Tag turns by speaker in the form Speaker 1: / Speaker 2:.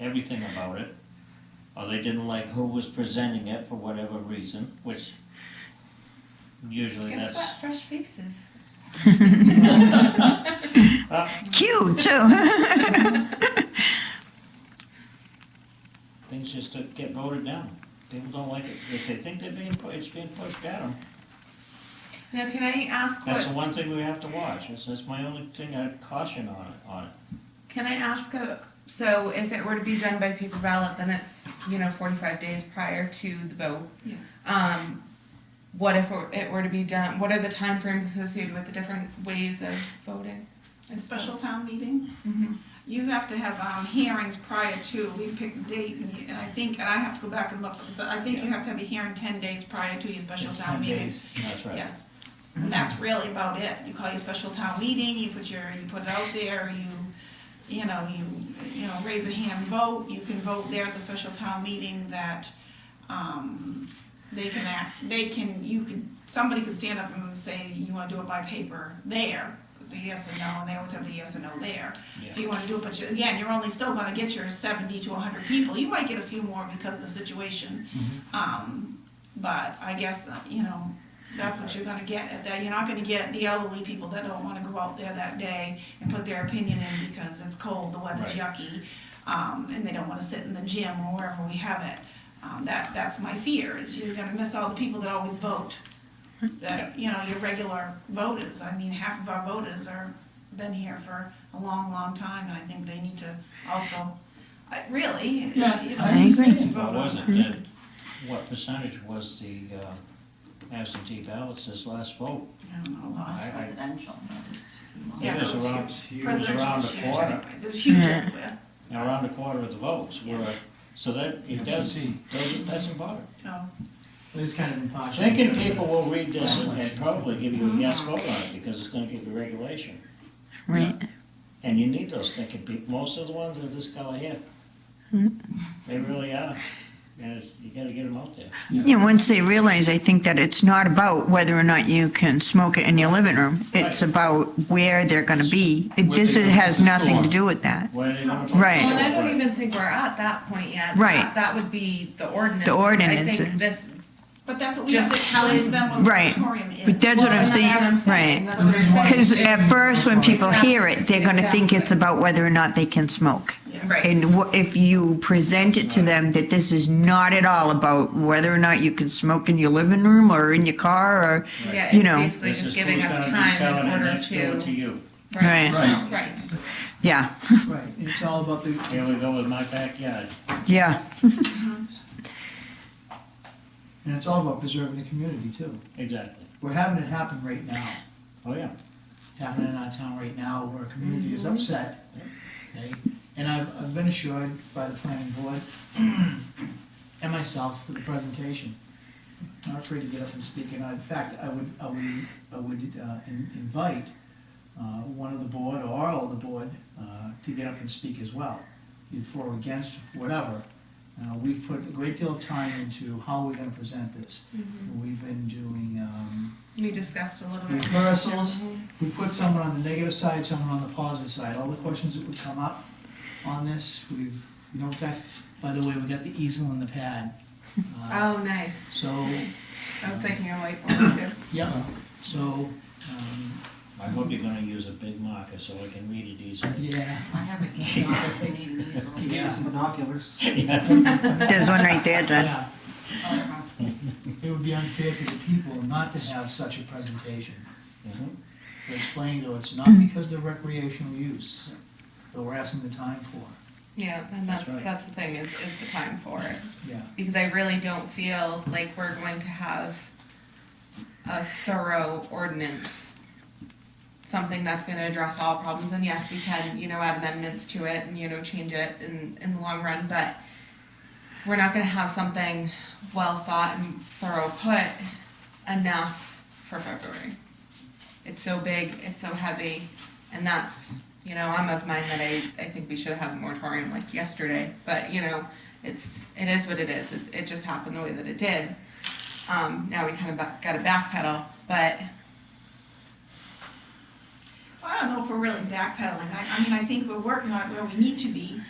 Speaker 1: everything about it, or they didn't like who was presenting it for whatever reason, which usually
Speaker 2: Guess
Speaker 1: that's.
Speaker 2: what? Fresh faces.
Speaker 3: Cute too.
Speaker 1: things just to get voted down. People don't like it. If they think they're being, pu- it's being pushed at them,
Speaker 2: Now, can I ask
Speaker 1: that's
Speaker 2: what?
Speaker 1: the one thing we have to watch. That's, that's my only thing I'd caution on it, on it.
Speaker 2: Can I ask a? So, if it were to be done by paper ballot, then it's you know 45 days prior to the vote.
Speaker 4: Yes.
Speaker 2: Um, what if it were to be done? What are the timeframes associated with the different ways of voting?
Speaker 4: A special town meeting,
Speaker 2: Mhm.
Speaker 4: you have to have, um, hearings prior to, we pick the date, and you- and I think, and I have to go back and look, but I think you have to have a hearing ten days prior to your special
Speaker 1: It's
Speaker 4: town
Speaker 1: ten
Speaker 4: meeting.
Speaker 1: days. That's right.
Speaker 4: Yes, and that's really about it, you call your special town meeting, you put your, you put it out there, you, you know, you, you know, raise a hand vote, you can vote there at the special town meeting that, um, they can act, they can, you can, somebody can stand up and say, you wanna do it by paper there, it's a yes or no, and they always have the yes or no there. If you wanna do it, but you, again, you're only still gonna get your seventy to hundred people, you might get a few more because of the situation. Um, but I guess, uh, you know, that's what you're gonna get at that, you're not gonna get the elderly people that don't wanna go out there that day and put their opinion in because it's cold, the weather's yucky, um, and they don't wanna sit in the gym or wherever we have it. Um, that, that's my fear, is you're gonna miss all the people that always vote. That, you know, your regular voters, I mean, half of our voters are, been here for a long, long time, and I think they need to also, I, really, you know.
Speaker 3: I understand.
Speaker 4: vote
Speaker 1: What
Speaker 4: on
Speaker 1: was
Speaker 4: that.
Speaker 1: it that, what percentage was the uh, absentee ballots this last vote?
Speaker 4: I don't know,
Speaker 1: I-
Speaker 4: lost.
Speaker 1: I-
Speaker 5: Presidential. that was-
Speaker 4: Yeah,
Speaker 1: It was
Speaker 4: it
Speaker 1: around,
Speaker 4: was
Speaker 1: it was
Speaker 4: Presidential
Speaker 1: around
Speaker 4: was
Speaker 1: a
Speaker 4: huge
Speaker 1: quarter,
Speaker 4: anyways, it was huge
Speaker 3: Yeah.
Speaker 4: everywhere,
Speaker 1: around a quarter of the votes were, so that, it does,
Speaker 6: Absentee.
Speaker 1: doesn't, doesn't bother.
Speaker 4: no,
Speaker 6: It's kind of impossible.
Speaker 1: Thinking people will read this and- and probably give you a
Speaker 5: Mm-hmm.
Speaker 1: yes vote on it, because it's gonna give you regulation.
Speaker 3: Right.
Speaker 1: And you need those thinking people. Most of the ones are this color here.
Speaker 5: Mm-hmm.
Speaker 3: Mm.
Speaker 1: They really are. And it's, you gotta get them out there.
Speaker 3: Yeah, once they realize, I think that it's not about whether or not you can smoke it in your living room. It's
Speaker 1: Right.
Speaker 3: about where they're going to be. It
Speaker 6: Where
Speaker 3: just
Speaker 6: they're
Speaker 3: it
Speaker 6: gonna
Speaker 3: has
Speaker 6: put the
Speaker 3: nothing to
Speaker 6: store.
Speaker 3: do with that.
Speaker 1: Where are they gonna? put
Speaker 3: Right.
Speaker 1: the
Speaker 2: Well, and I
Speaker 1: ballot?
Speaker 2: don't even think we're at that point yet.
Speaker 3: Right.
Speaker 2: That, that would be the ordinance. I think
Speaker 3: ordinances.
Speaker 2: this.
Speaker 4: but that's what we
Speaker 2: Just
Speaker 4: just explained
Speaker 2: explain-
Speaker 4: them what
Speaker 3: Right.
Speaker 4: moratorium is.
Speaker 3: But that's what
Speaker 2: Well,
Speaker 3: I'm
Speaker 2: and that's
Speaker 3: saying,
Speaker 2: what I'm That's
Speaker 3: right?
Speaker 2: what I'm saying.
Speaker 3: Because at first, when people hear it, they're going to think it's
Speaker 2: Exactly.
Speaker 3: about whether or not they can smoke.
Speaker 4: Yes.
Speaker 2: Right.
Speaker 3: And wha- if you present it to them that this is not at all about whether or not you can smoke in your living room or in your car or,
Speaker 2: Yeah,
Speaker 3: you
Speaker 2: it's
Speaker 3: know.
Speaker 2: basically
Speaker 1: This
Speaker 2: just
Speaker 1: is
Speaker 2: giving
Speaker 1: who's
Speaker 2: us
Speaker 1: gonna be
Speaker 2: time
Speaker 1: selling
Speaker 2: in
Speaker 1: it
Speaker 2: order
Speaker 1: next door To
Speaker 2: to.
Speaker 1: you.
Speaker 3: right,
Speaker 6: Right,
Speaker 2: Right.
Speaker 3: yeah,
Speaker 6: right. It's all about the,
Speaker 1: Here we go with my backyard.
Speaker 3: yeah,
Speaker 6: and it's all about preserving the community too.
Speaker 1: Exactly.
Speaker 6: We're having it happen right now.
Speaker 1: Oh, yeah.
Speaker 6: It's happening in our town right now where a community is upset. okay? And I've, I've been assured by the planning board and myself for the presentation. I'm not afraid to get up and speak, and I- in fact, I would, I would, I would uh, in- invite uh, one of the board or all of the board uh, to get up and speak as well, either for or against, whatever. Uh, We've put a great deal of time into how we're gonna present this. We've been doing um,
Speaker 2: We discussed a little bit.
Speaker 6: rehearsals. We put someone on the negative side, someone on the positive side. All the questions that would come up on this, we've, you know, in fact, by the way, we got the easel and the pad. Uh,
Speaker 2: Oh, nice.
Speaker 6: So,
Speaker 2: I was thinking of whiteboard too.
Speaker 6: yeah, so, um,
Speaker 1: I hope you're gonna use a big marker so I can read it easily.
Speaker 6: yeah.
Speaker 5: I have a candle if you need me.
Speaker 7: He gave us some binoculars.
Speaker 3: there's one right there, John.
Speaker 6: yeah. It would be unfair to the people not to have such a presentation.
Speaker 1: Mhm.
Speaker 6: We're explaining though, it's not because they're recreational use, but we're asking the time for.
Speaker 2: Yeah, and
Speaker 1: That's
Speaker 2: that's
Speaker 1: right.
Speaker 2: that's the thing is is the time for it
Speaker 6: Yeah.
Speaker 2: because I really don't feel like we're going to have a thorough ordinance, something that's going to address all problems. And yes, we can you know add amendments to it and you know change it in in the long run, but we're not going to have something well thought and thorough put enough for February. It's so big, it's so heavy, and that's, you know, I'm of mind that I, I think we should have had a moratorium like yesterday, but you know, it's, it is what it is. It, it just happened the way that it did. Um, now we kind of got to backpedal, but
Speaker 4: I don't know if we're really backpedaling, I, I mean, I think we're working on it where we need to be,